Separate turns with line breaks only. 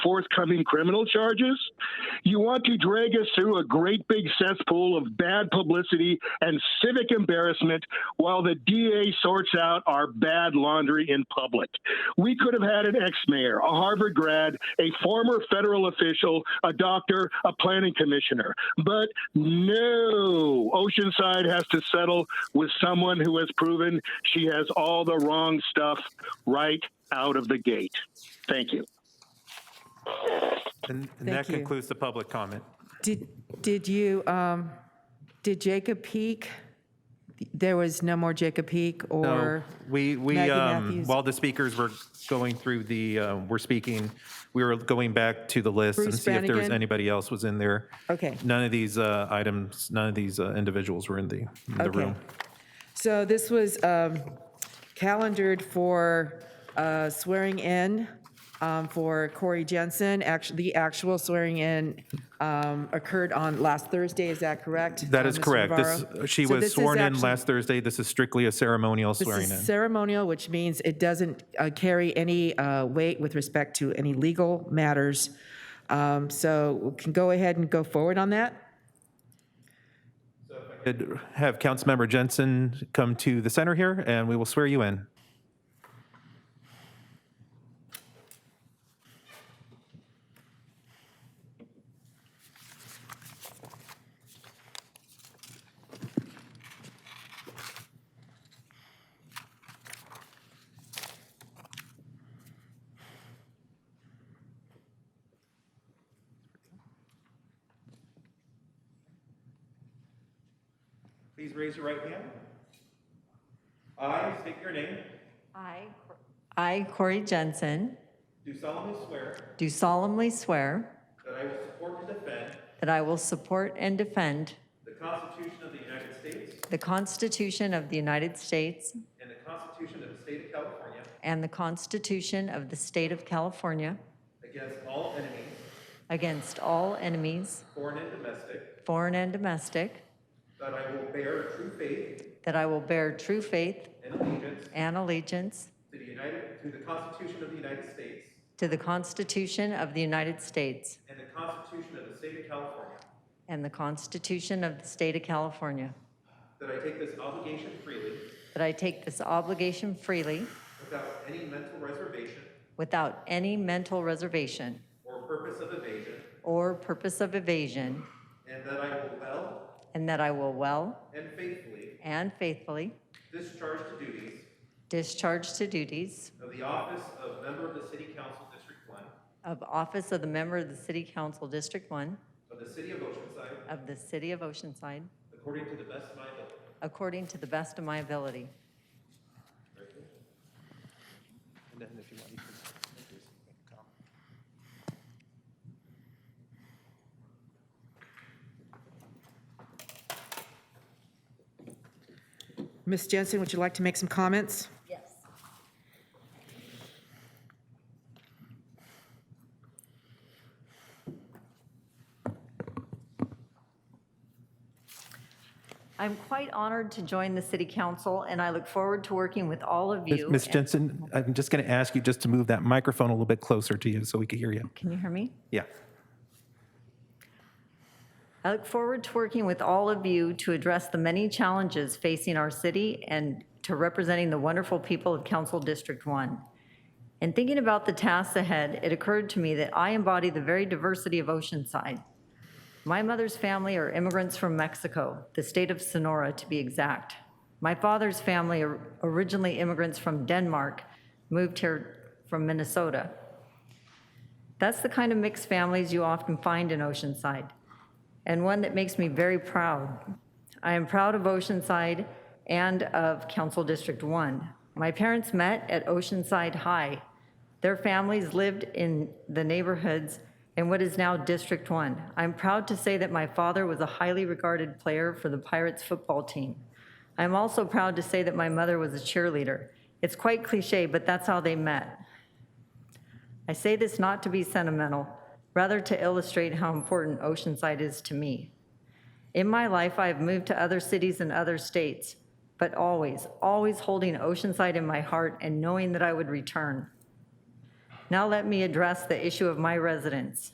forthcoming criminal charges? You want to drag us through a great big cesspool of bad publicity and civic embarrassment while the DA sorts out our bad laundry in public. We could have had an ex mayor, a Harvard grad, a former federal official, a doctor, a planning commissioner. But no, Oceanside has to settle with someone who has proven she has all the wrong stuff right out of the gate. Thank you.
And and
Thank
that
you.
concludes the public comment.
Did, did you, um, did Jacob peak? There was no more Jacob peak
No,
or?
we, we,
Maggie
um,
Matthews.
while the speakers were going through the, uh, were speaking, we were going back to the list and
Bruce
see if there was
Brannigan?
anybody else was in there.
Okay.
None of these uh, items, none of these uh, individuals were in the, in the
Okay.
room.
So this was um, calendared for uh, swearing in um, for Corey Jensen. Actually, the actual swearing in um, occurred on last Thursday, is that correct?
That
uh,
is
Mr.
correct. This,
Navarro?
she
So
was
this is
sworn in
actually-
last Thursday. This is strictly a ceremonial swearing
This is
in.
ceremonial, which means it doesn't uh, carry any uh, weight with respect to any legal matters. Um, So we can go ahead and go forward on that.
Could Have Councilmember Jensen come to the center here, and we will swear you in. Please raise your right hand. I state your name,
I, Cor- I, Corey Jensen,
do solemnly swear
do solemnly swear
that I will support and defend
that I will support and
the Constitution
defend
of the United States
the Constitution of the United States
and the Constitution of the State of California
and the Constitution of the State of California
against all enemies,
against all enemies,
foreign and domestic,
foreign and domestic,
that I will bear true faith
that I will bear true faith
and allegiance
and allegiance
to the United, to the Constitution of the United States
to the Constitution of the United States
and the Constitution of the State of California,
and the Constitution of the State of California,
that I take this obligation freely
that I take this obligation freely
without any mental reservation
without any mental reservation
or purpose of evasion,
or purpose of evasion,
and that I will well
And that I will well
and faithfully
and faithfully
discharge the duties
discharge the duties
of the office of member of the City Council District One
of office of the member of the City Council District 1
of the City of Oceanside
of the City of Oceanside
according to the best of my ability.
according to the best of my ability.
And then if you want, you can make your comment.
Ms. Jensen, would you like to make some comments?
Yes. I'm quite honored to join the City Council, and I look forward to working with all of you.
Ms. Jensen, I'm just going to ask you just to move that microphone a little bit closer to you so we can hear you.
Can you hear me?
Yeah.
I look forward to working with all of you to address the many challenges facing our city and to representing the wonderful people of Council District 1. In thinking about the tasks ahead, it occurred to me that I embody the very diversity of Oceanside. My mother's family are immigrants from Mexico, the state of Sonora to be exact. My father's family are originally immigrants from Denmark, moved here from Minnesota. That's the kind of mixed families you often find in Oceanside and one that makes me very proud. I am proud of Oceanside and of Council District 1. My parents met at Oceanside High. Their families lived in the neighborhoods in what is now District 1. I'm proud to say that my father was a highly regarded player for the Pirates football team. I'm also proud to say that my mother was a cheerleader. It's quite cliche, but that's how they met. I say this not to be sentimental, rather to illustrate how important Oceanside is to me. In my life, I have moved to other cities and other states, but always, always holding Oceanside in my heart and knowing that I would return. Now let me address the issue of my residents.